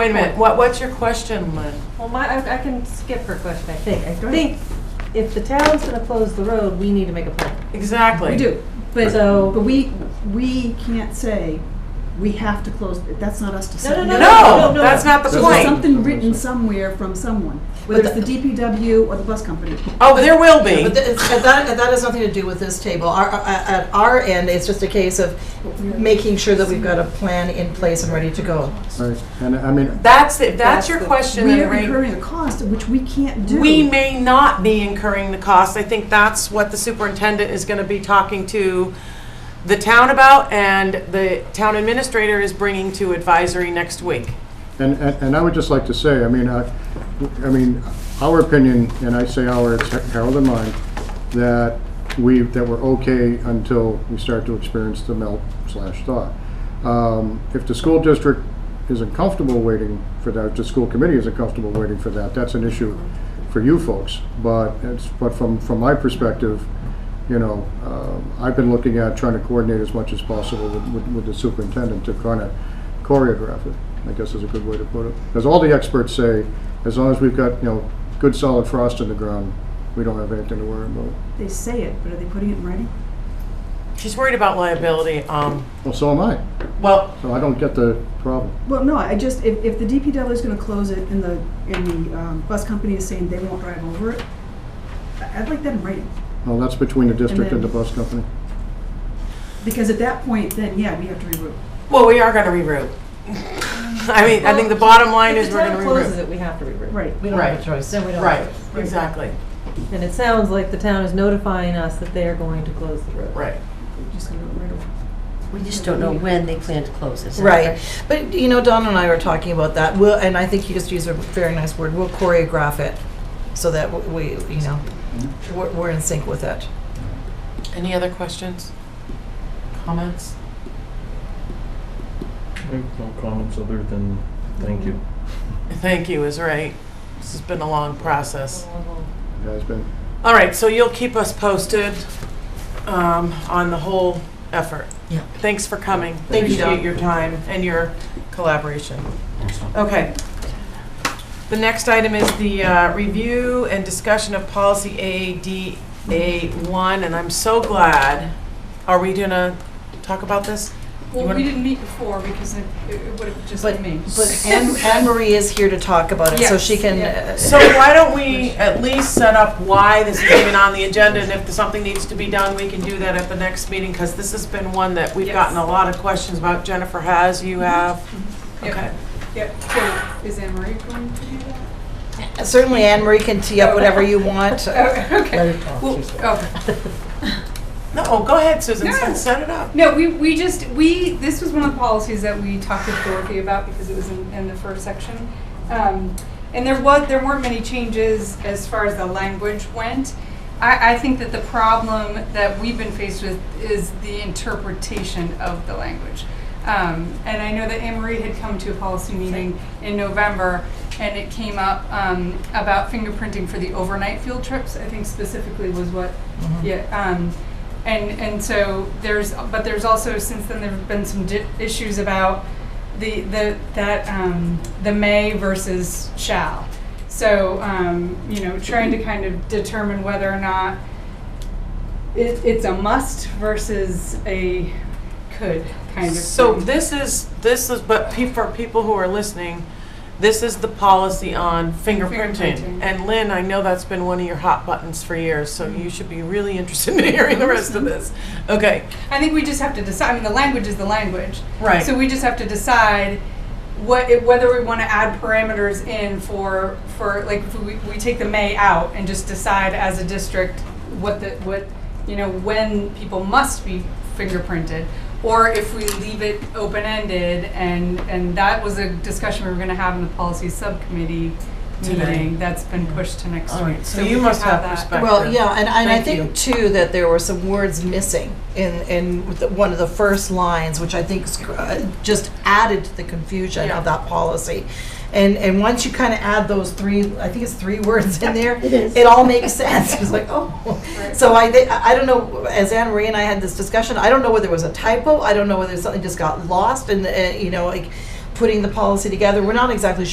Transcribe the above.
Wait a minute, what, what's your question, Lynn? Well, my, I I can skip her question, I think. I think if the town's gonna close the road, we need to make a plan. Exactly. We do, but, uh, So- but we, we can't say, we have to close, that's not us to say. No, no, No, no, no. that's not the That's There's not- point. something written somewhere from someone, whether it's the DPW or the bus company. Oh, there will be. But that, that, that has nothing to do with this table. Our, at our end, it's just a case of making sure that we've got a plan in place and ready to go. Right, and I mean, That's, if that's your That's the- question, We then are Ray, incurring a cost, which we can't do. we may not be incurring the cost. I think that's what the superintendent is gonna be talking to the town about, and the town administrator is bringing to advisory next week. And, and and I would just like to say, I mean, I, I mean, our opinion, and I say our, it's Harold and mine, that we, that we're okay until we start to experience the melt slash thaw. Um, If the school district isn't comfortable waiting for that, if the school committee isn't comfortable waiting for that, that's an issue for you folks. But it's, but from, from my perspective, you know, um, I've been looking at trying to coordinate as much as possible with- with, with the superintendent to kind of choreograph it, I guess is a good way to put it. As all the experts say, as long as we've got, you know, good solid frost in the ground, we don't have anything to worry about. They say it, but are they putting it in writing? She's worried about liability, um, Well, so am I, well, so I don't get the problem. Well, no, I just, if, if the DPW is gonna close it and the, and the, um, bus company is saying they won't drive over it, I- I'd like that in writing. Well, that's between the district and the then- bus company. Because at that point, then, yeah, we have to reroute. well, we are gonna reroute. I mean, I think the bottom line is we're If gonna the town closes reroute. it, we have to reroute. Right. We don't have Right. a choice. Then we don't have Right, a choice. exactly, And it sounds like the town is notifying us that they are going to close the road. right. We're just gonna go right over. We just don't know when they plan to close this. Right, but you know, Don and I were talking about that, we'll, and I think you just used a very nice word, we'll choreograph it so that w- we, you know, we're, we're in sync with it. Any other questions? Comments? I have no comments other than thank you. Thank you is right. This has been a long process. It has been. All right, so you'll keep us posted um, on the whole effort. Yeah. Thanks for coming. Thank you, Appreciate Dawn. your time and your collaboration. Okay. The next item is the uh, review and discussion of policy ADA1, and I'm so glad. Are we gonna talk about this? You Well, wanna- we didn't meet before because it, it would have just But- been me. But Anne, Anne Marie is here to talk about it, so she Yes, can. yeah. uh, So why don't we at least set up why this is even on the agenda, and if something needs to be done, we can do that at the next meeting, because this has been one that we've Yes. Mm-hmm. gotten a lot of questions about. Jennifer has, you have. Yep. Okay. Yep, so is Anne Marie going to do that? uh, Certainly Anne Marie can tee up whatever you want. Oh, okay. Let her talk, Well, she's- oh. No, oh, go ahead, Susan, set No. set it up. No, we, we just, we, this was one of the policies that we talked with Dorothy about because it was in, in the first section. Um, and there was, there weren't many changes as far as the language went. I, I think that the problem that we've been faced with is the interpretation of the language. Um, and I know that Anne Marie had come to a policy meeting in November, and it came up um, about fingerprinting for the overnight field trips. I think specifically was what, Mm-hmm. yeah. Um, and and so there's, but there's also since then there have been some di- issues about the the that um, the may versus shall. So um, you know, trying to kind of determine whether or not it, it's a must versus a could kind of. So thing. this is, this is, but pe- for people who are listening, this is the policy on fingerprinting. Fingerprinting. And Lynn, I know that's been one of your hot buttons for years, so Mm-hmm. you should be really interested in hearing the rest of this. Okay, I think we just have to decide. I mean, the language is the language. right. So we just have to decide what it, whether we want to add parameters in for for like if we, we take the may out and just decide as a district what the what you know when people must be fingerprinted or if we leave it open ended and and that was a discussion we were going to have in the policy subcommittee Today. Mm-hmm. meeting that's been pushed to next All week. right, so you must have perspective. Well, yeah, and, and I Thank think too that there were some words missing in, in the- one of the first lines, which I think sc- uh, just added to the confusion Yeah. of that policy. And, and once you kind of add those three, I think it's three words in there, It is. it all makes sense. It's like, oh. Right. So I, thi- I I don't know, as Anne Marie and I had this discussion, I don't know whether it was a typo, I don't know whether something just got lost and, uh, you know, like, putting the policy together. We're not exactly